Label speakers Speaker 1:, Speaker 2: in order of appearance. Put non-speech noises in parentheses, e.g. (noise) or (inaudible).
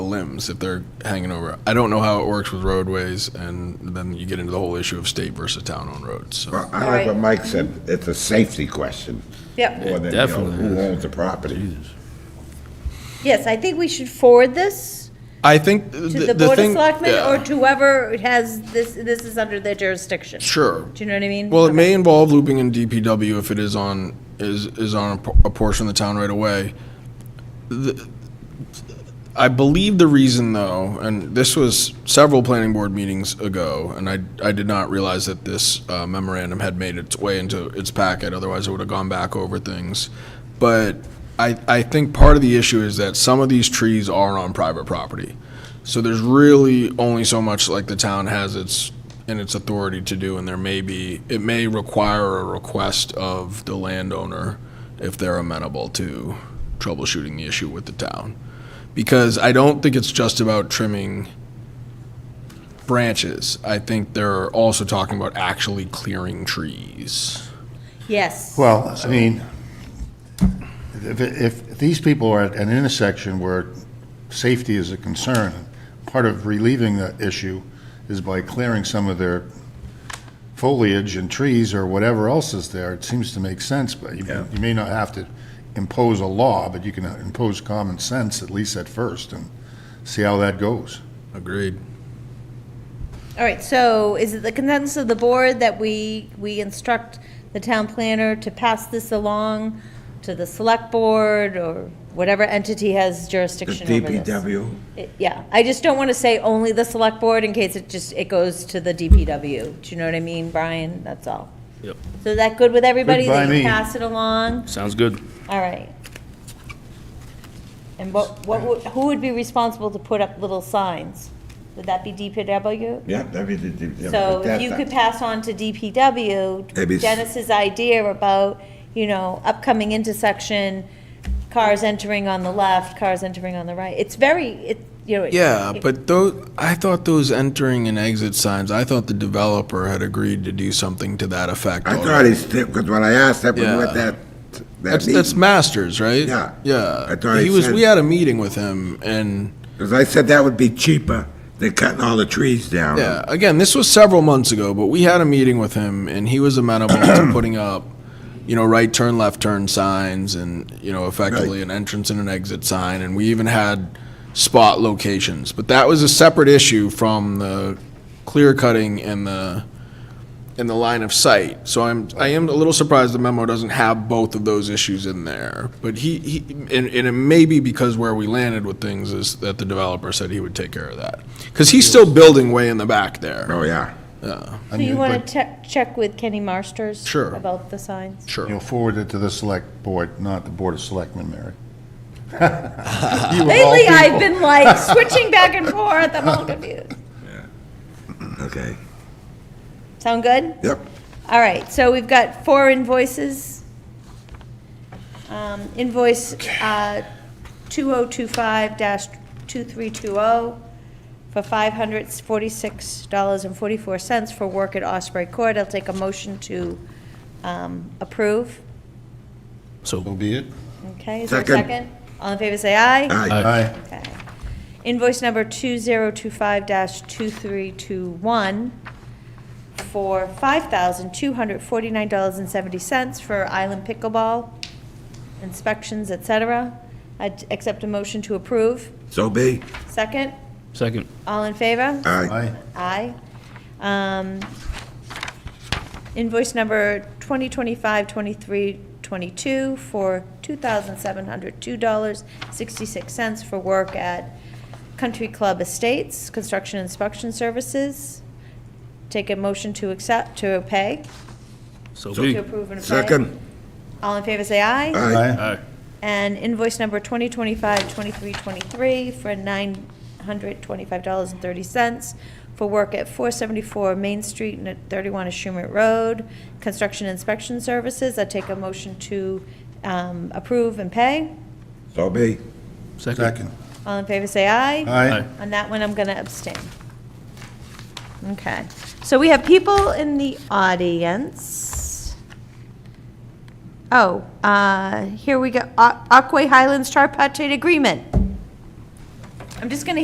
Speaker 1: limbs if they're hanging over. I don't know how it works with roadways, and then you get into the whole issue of state versus town-owned roads, so.
Speaker 2: I like what Mike said, it's a safety question
Speaker 3: Yep,
Speaker 2: more than, you know,
Speaker 4: definitely
Speaker 2: who
Speaker 4: is.
Speaker 2: owns the property.
Speaker 3: yes, I think we should forward this
Speaker 1: I think
Speaker 3: to
Speaker 1: th-
Speaker 3: the
Speaker 1: the
Speaker 3: Board of
Speaker 1: thing.
Speaker 3: Selectmen
Speaker 1: yeah.
Speaker 3: or to whoever has, this, this is under their jurisdiction.
Speaker 1: Sure.
Speaker 3: Do you know what I mean?
Speaker 1: Well, it may
Speaker 3: Okay.
Speaker 1: involve looping in DPW if it is on, is, is on a por- a portion of the town right away. The- I believe the reason though, and this was several planning board meetings ago, and I, I did not realize that this uh, memorandum had made its way into its packet, otherwise I would have gone back over things. But I, I think part of the issue is that some of these trees are on private property. So there's really only so much like the town has its, in its authority to do, and there may be, it may require a request of the landowner if they're amenable to troubleshooting the issue with the town. Because I don't think it's just about trimming branches. I think they're also talking about actually clearing trees.
Speaker 3: Yes.
Speaker 5: Well, I mean, if, if these people are at an intersection where safety is a concern, part of relieving the issue is by clearing some of their foliage and trees or whatever else is there. It seems to make sense, but you, you may not have to impose a law, but you can impose common sense, at least at first, and see how that goes.
Speaker 1: Agreed.
Speaker 3: All right, so is it the consensus of the board that we, we instruct the town planner to pass this along to the select board or whatever entity has
Speaker 2: The
Speaker 3: jurisdiction over this?
Speaker 2: DPW,
Speaker 3: It- Yeah, I just don't want to say only the select board in case it just, it goes to the DPW. Do you know what I mean, Brian? That's all.
Speaker 4: Yep.
Speaker 3: So is that good with everybody?
Speaker 5: Good by
Speaker 3: That you
Speaker 5: me.
Speaker 3: pass it along?
Speaker 4: Sounds good.
Speaker 3: All right. And what, what, would- who would be responsible to put up little signs? Would that be DPW?
Speaker 2: yeah, that'd be the DPW.
Speaker 3: So if
Speaker 2: That-
Speaker 3: you
Speaker 2: that-
Speaker 3: could pass on to
Speaker 2: Maybe
Speaker 3: DPW,
Speaker 2: s-
Speaker 3: Dennis's idea about, you know, upcoming intersection, cars entering on the left, cars entering on the right. It's very, it, you know. it-
Speaker 1: Yeah,
Speaker 3: it-
Speaker 1: but those, I thought those entering and exit signs, I thought the developer had agreed to do something to that effect.
Speaker 2: I thought
Speaker 1: already.
Speaker 2: he said, because when I asked, that was
Speaker 1: Yeah.
Speaker 2: what that, that
Speaker 1: That's, that's
Speaker 2: means.
Speaker 1: Masters, right?
Speaker 2: Yeah.
Speaker 1: Yeah.
Speaker 2: I thought he
Speaker 1: was,
Speaker 2: said-
Speaker 1: we had a meeting with him and,
Speaker 2: Because I said that would be cheaper than cutting all the trees down.
Speaker 1: yeah, again, this was several months ago, but we had a meeting with him and he was amenable to putting up, you know, right turn, left turn signs and, you know, effectively an entrance and an exit sign. And we even had spot locations, but that was a separate issue from the clear cutting and the, in the line of sight. So I'm, I am a little surprised the memo doesn't have both of those issues in there. But he, he and, and it may be because where we landed with things is that the developer said he would take care of that. Because he's still building way in the back there.
Speaker 2: Oh, yeah.
Speaker 1: Yeah,
Speaker 3: So you want to check, check with Kenny Marsters?
Speaker 1: Sure.
Speaker 3: About the signs?
Speaker 1: sure.
Speaker 5: You'll forward it to the select board, not the Board of Selectmen, Mary. (laughs) You of all
Speaker 3: Lately,
Speaker 5: people.
Speaker 3: I've been
Speaker 2: (laughs)
Speaker 3: like switching back and forth, I'm all confused.
Speaker 2: Okay.
Speaker 3: Sound good?
Speaker 2: Yep.
Speaker 3: All right, so we've got four invoices. Um, Invoice uh, 2025-2320 for $546.44 for work at Osprey Court. I'll take a motion to um, approve.
Speaker 5: So be it.
Speaker 3: Okay, is there a
Speaker 2: Second.
Speaker 3: second? All in favor, say aye.
Speaker 1: Uh,
Speaker 2: Aye.
Speaker 5: Aye.
Speaker 3: Okay. Invoice number 2025-2321 for $5,249.70 for Island Pickleball inspections, et cetera. I accept a motion to approve.
Speaker 2: So be.
Speaker 3: Second,
Speaker 4: Second.
Speaker 3: all in favor?
Speaker 2: Aye.
Speaker 5: Aye.
Speaker 3: Aye. Um, Invoice number 2025-2322 for $2,702.66 for work at Country Club Estates, construction inspection services. Take a motion to accept, to pay,
Speaker 4: So
Speaker 3: to
Speaker 4: be.
Speaker 3: approve and pay.
Speaker 2: Second.
Speaker 3: All in favor, say aye.
Speaker 2: Aye.
Speaker 4: Aye.
Speaker 3: And invoice number 2025-2323 for $925.30 for work at 474 Main Street and at 31 Ashumet Road, construction inspection services. I take a motion to um, approve and pay.
Speaker 2: So be.
Speaker 4: Second.
Speaker 5: Second.
Speaker 3: All in favor, say aye.
Speaker 5: Aye.
Speaker 3: On that one, I'm going to abstain. Okay. So we have people in the audience. Oh, uh, here we go. Aquay Highlands Tripartite Agreement. I'm just going to